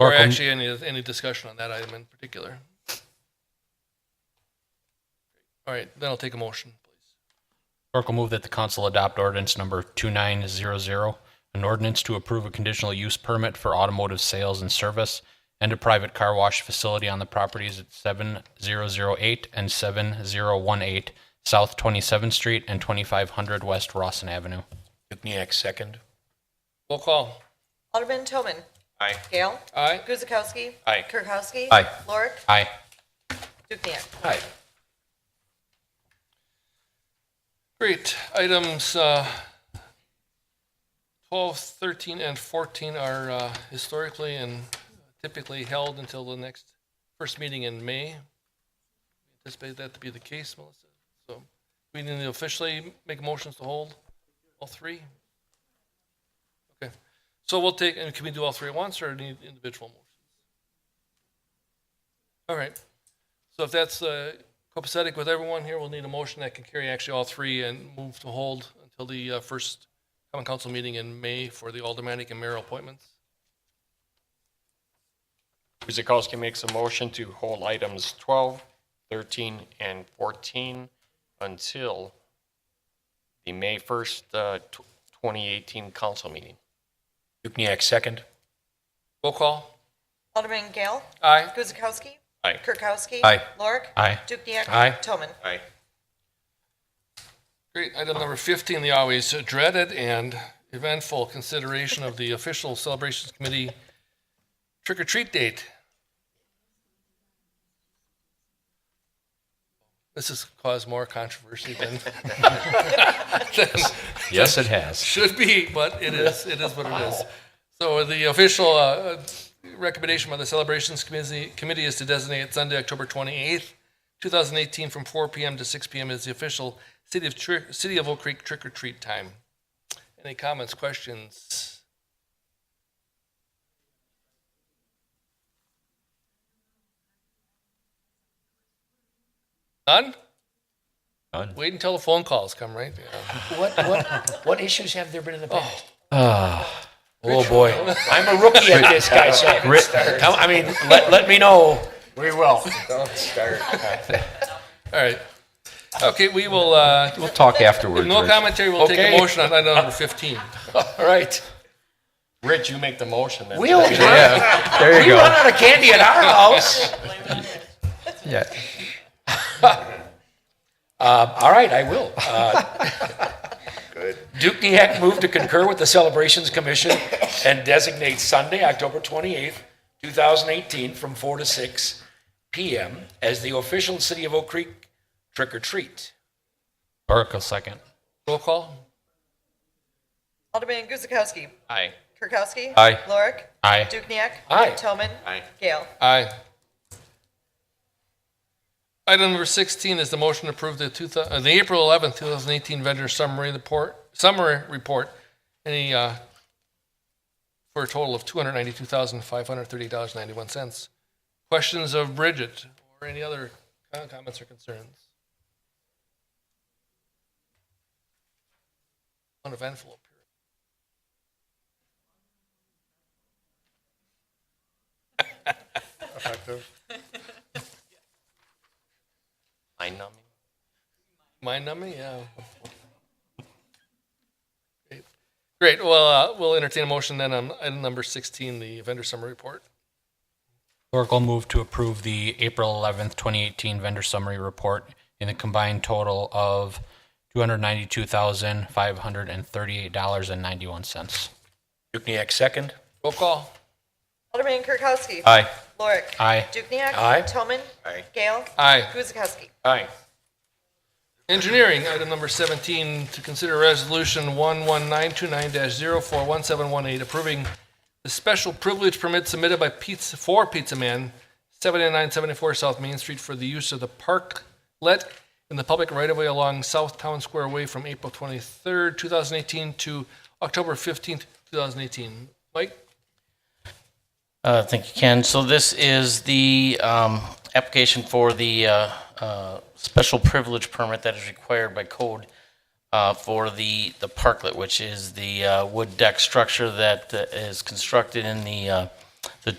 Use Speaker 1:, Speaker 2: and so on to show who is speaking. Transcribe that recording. Speaker 1: Or
Speaker 2: Oracle-
Speaker 1: actually, any, any discussion on that item in particular? All right, then I'll take a motion, please.
Speaker 2: Oracle move that the council adopt ordinance number 2900, an ordinance to approve a conditional use permit for automotive sales and service and a private car wash facility on the properties at 7008 and 7018 South 27th Street and 2500 West Rawson Avenue.
Speaker 3: Dukniak, second.
Speaker 1: Roll call.
Speaker 4: Alderman Toman.
Speaker 3: Aye.
Speaker 4: Gale.
Speaker 1: Aye.
Speaker 4: Guzekowski.
Speaker 3: Aye.
Speaker 4: Kirkowski.
Speaker 3: Aye.
Speaker 4: Lorik.
Speaker 2: Aye.
Speaker 4: Dukenyak.
Speaker 3: Aye.
Speaker 1: Great. Items uh, 12, 13, and 14 are uh, historically and typically held until the next first meeting in May. Anticipate that to be the case, Melissa. So we need to officially make motions to hold all three? Okay. So we'll take, and can we do all three at once or need individual motions? All right. So if that's uh, copacetic with everyone here, we'll need a motion that can carry actually all three and move to hold until the uh, first common council meeting in May for the aldermanic and mayor appointments.
Speaker 3: Guzekowski makes a motion to hold items 12, 13, and 14 until the May 1st, uh, tw- 2018 council meeting. Dukniak, second.
Speaker 1: Roll call.
Speaker 4: Alderman Gale.
Speaker 1: Aye.
Speaker 4: Guzekowski.
Speaker 3: Aye.
Speaker 4: Kirkowski.
Speaker 3: Aye.
Speaker 4: Lorik.
Speaker 2: Aye.
Speaker 4: Dukenyak.
Speaker 3: Aye.
Speaker 4: Toman.
Speaker 3: Aye.
Speaker 1: Great. Item number 15, the always dreaded and eventful consideration of the official celebrations committee trick or treat date. This has caused more controversy than
Speaker 2: Yes, it has.
Speaker 1: should be, but it is, it is what it is. So the official uh, recommendation by the Celebrations Committee committee is to designate Sunday, October 28th, 2018, from 4 PM to 6 PM as the official City of, Tri- City of Oak Creek trick or treat time. Any comments, questions? None?
Speaker 2: None.
Speaker 1: Wait until the phone calls come, right? Yeah.
Speaker 5: What, what, what issues have there been in the past?
Speaker 2: Oh, boy.
Speaker 5: I'm a rookie at this, guys. so I haven't started.
Speaker 3: I mean, let, let me know.
Speaker 5: We will.
Speaker 1: All right. Okay, we will, uh,
Speaker 6: We'll talk afterwards.
Speaker 1: no
Speaker 6: Rich.
Speaker 1: commentary, we'll take a
Speaker 3: Okay.
Speaker 1: motion on item number 15.
Speaker 3: All right. Rich, you make the motion then.
Speaker 5: We'll, we
Speaker 6: Yeah, there you
Speaker 5: run
Speaker 6: go.
Speaker 5: out of candy at our house.
Speaker 6: Yeah.
Speaker 5: Um, All right, I will. Uh, Good. Dukniak moved to concur with the Celebrations Commission and designate Sunday, October 28th, 2018, from 4 to 6 p.m. as the official City of Oak Creek trick or treat.
Speaker 2: Oracle second.
Speaker 1: Roll call?
Speaker 4: Alderman Guzekowski.
Speaker 3: Aye.
Speaker 4: Kirkowski.
Speaker 6: Aye.
Speaker 4: Lorik.
Speaker 2: Aye.
Speaker 4: Dukenyak.
Speaker 5: Aye.
Speaker 4: Toman.
Speaker 3: Aye.
Speaker 4: Gale.
Speaker 1: Aye. Item number 16 is the motion to approve the 2000 uh, the April 11th, 2018 vendor summary report, summary report, any, uh, for a total of $292,538.91. Questions of Bridget or any other uh, comments or concerns? Uneventful appearance.
Speaker 3: I know.
Speaker 1: Mind numbing, yeah. Great. Great. Well, uh, we'll entertain a motion then on item number 16, the vendor summary report.
Speaker 2: Oracle move to approve the April 11th, 2018 vendor summary report in the combined total of $292,538.91.
Speaker 3: Dukniak, second.
Speaker 1: Roll call.
Speaker 4: Alderman Kirkowski.
Speaker 6: Aye.
Speaker 4: Lorik.
Speaker 2: Aye.
Speaker 4: Dukenyak.
Speaker 3: Aye.
Speaker 4: Toman.
Speaker 3: Aye.
Speaker 4: Gale.
Speaker 1: Aye.
Speaker 4: Guzekowski.
Speaker 3: Aye.
Speaker 1: Engineering, item number 17, to consider resolution 11929-041718, approving the special privilege permit submitted by Pizza, for Pizza Man, 7974 South Main Street for the use of the parklet in the public right-of-way along South Town Square Way from April 23rd, 2018 to October 15th, 2018. Mike?
Speaker 7: Uh, Thank you, Ken. So this is the um, application for the uh, uh, special privilege permit that is required by code uh, for the, the parklet, which is the uh, wood deck structure that uh, is constructed in the, uh, the